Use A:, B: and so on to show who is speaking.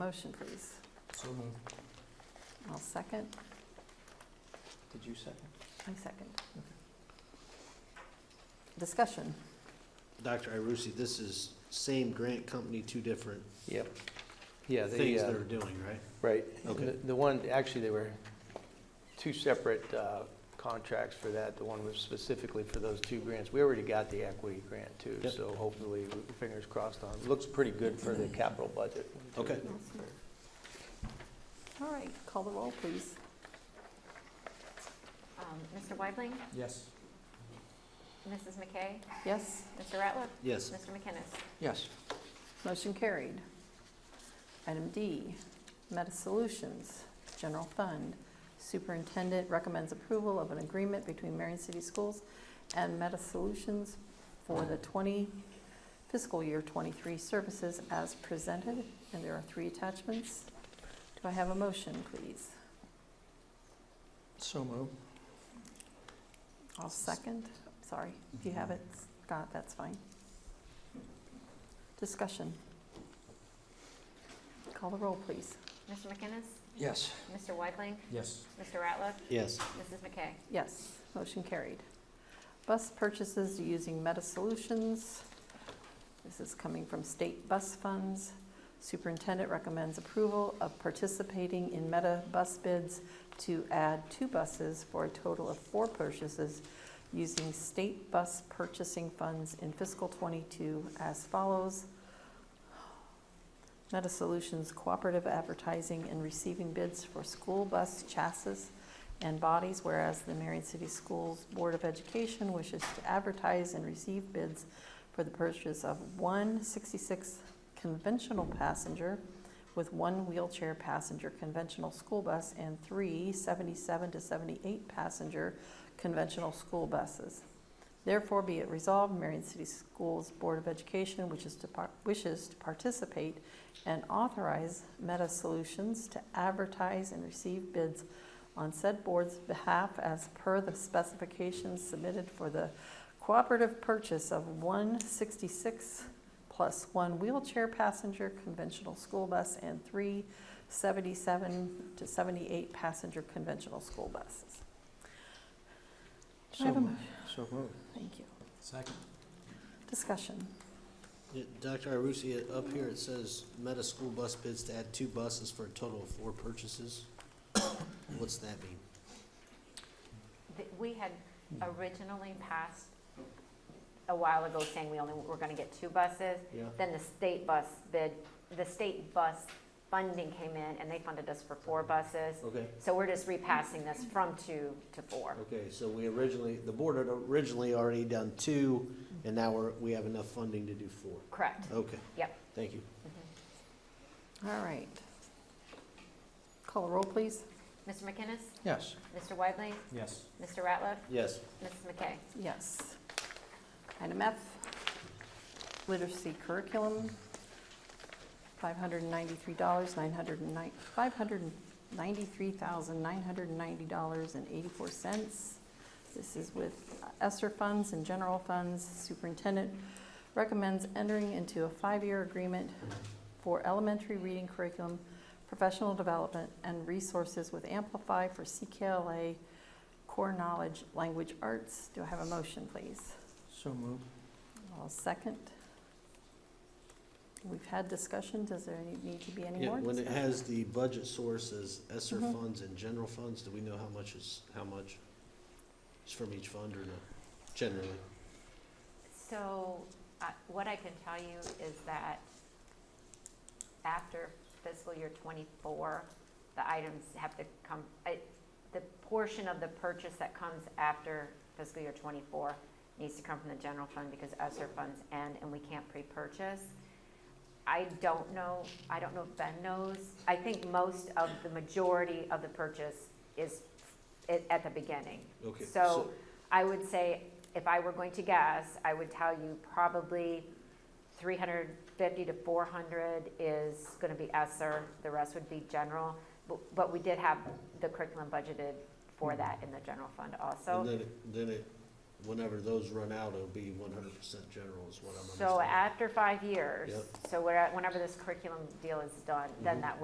A: Motion, please.
B: So moved.
A: I'll second.
B: Did you second?
A: I second. Discussion.
C: Dr. Irucci, this is same grant company, two different
D: Yep. Yeah, they,
C: things
D: uh,
C: they're doing, right?
D: right.
C: Okay.
D: The- The one, actually, there were two separate uh, contracts for that. The one was specifically for those two grants. We already got the equity grant too,
C: Yep.
D: so hopefully, fingers crossed on. Looks pretty good for the capital budget.
C: Okay.
A: All right, call the roll, please.
E: Um, Mr. Weidling,
B: Yes.
E: Mrs. McKay,
A: Yes,
E: Mr. Ratliff,
C: Yes,
E: Mr. McKinnis.
B: Yes.
A: motion carried. Item D, Meta Solutions, General Fund. Superintendent recommends approval of an agreement between Marion City Schools and Meta Solutions for the 20 fiscal year 23 services as presented, and there are three attachments. Do I have a motion, please?
B: So moved.
A: I'll second. Sorry, if you have it, Scott, that's fine. Discussion. Call the roll, please.
E: Mr. McKinnis,
B: Yes.
E: Mr. Weidling,
B: Yes.
E: Mr. Ratliff,
C: yes,
E: Mrs. McKay.
A: Yes, motion carried. Bus purchases using Meta Solutions. This is coming from state bus funds. Superintendent recommends approval of participating in Meta bus bids to add two buses for a total of four purchases using state bus purchasing funds in fiscal '22 as follows. Meta Solutions Cooperative Advertising and Receiving Bids for School Bus Chassis and bodies, whereas the Marion City Schools Board of Education wishes to advertise and receive bids for the purchase of one 66 conventional passenger with one wheelchair passenger conventional school bus and three 77 to 78 passenger conventional school buses. Therefore, be it resolved, Marion City Schools Board of Education wishes to, par- wishes to participate and authorize Meta Solutions to advertise and receive bids on said board's behalf as per the specifications submitted for the cooperative purchase of one 66 plus one wheelchair passenger conventional school bus and three 77 to 78 passenger conventional school buses. Do I have a
D: So-
A: motion?
D: So moved.
A: Thank you.
B: Second.
A: Discussion.
C: Yeah, Dr. Irucci, uh, up here it says meta school bus bids to add two buses for a total of four purchases. What's that mean?
E: Th- We had originally passed a while ago saying we only were going to get two buses.
C: Yeah.
E: Then the state bus bid, the state bus funding came in and they funded us for four buses.
C: Okay,
E: So we're just repassing this from two to four.
C: okay, so we originally, the board had originally already done two, and now we're, we have enough funding to do four.
E: Correct.
C: Okay.
E: Yep.
C: Thank you.
E: Mhm.
A: All right. Call the roll, please.
E: Mr. McKinnis,
B: Yes.
E: Mr. Weidling,
B: Yes.
E: Mr. Ratliff,
C: Yes,
E: Mrs. McKay.
A: Yes. Item F, literacy curriculum, $593, 909 $593,990.84. This is with ESSER funds and general funds. Superintendent recommends entering into a five-year agreement for elementary reading curriculum, professional development, and resources with Amplify for CKLA Core Knowledge Language Arts. Do I have a motion, please?
B: So moved.
A: I'll second. We've had discussion. Does there any- need to be any
C: Yeah,
A: more?
C: when it
A: discussion?
C: has the budget sources, ESSER
A: Mhm.
C: funds and general funds, do we know how much is, how much is from each fund or not, generally?
E: So, uh, what I can tell you is that after fiscal year twenty-four, the items have to come, I- the portion of the purchase that comes after fiscal year twenty-four needs to come from the general fund because ESER funds end and we can't pre-purchase. I don't know, I don't know if Ben knows. I think most of, the majority of the purchase is at, at the beginning.
C: Okay,
E: So I would say, if I were going to guess, I would tell you probably 350 to 400 is going to be ESSER, the rest would be general. But- But we
C: Mm-hmm.
E: did have the curriculum budgeted for that in the general fund also.
C: And then, it- then it whenever those run out, it'll be one hundred percent general is what I'm understanding.
E: So after five years,
C: Yep.
E: so where- whenever this curriculum deal is done, then
C: Mhm.
E: that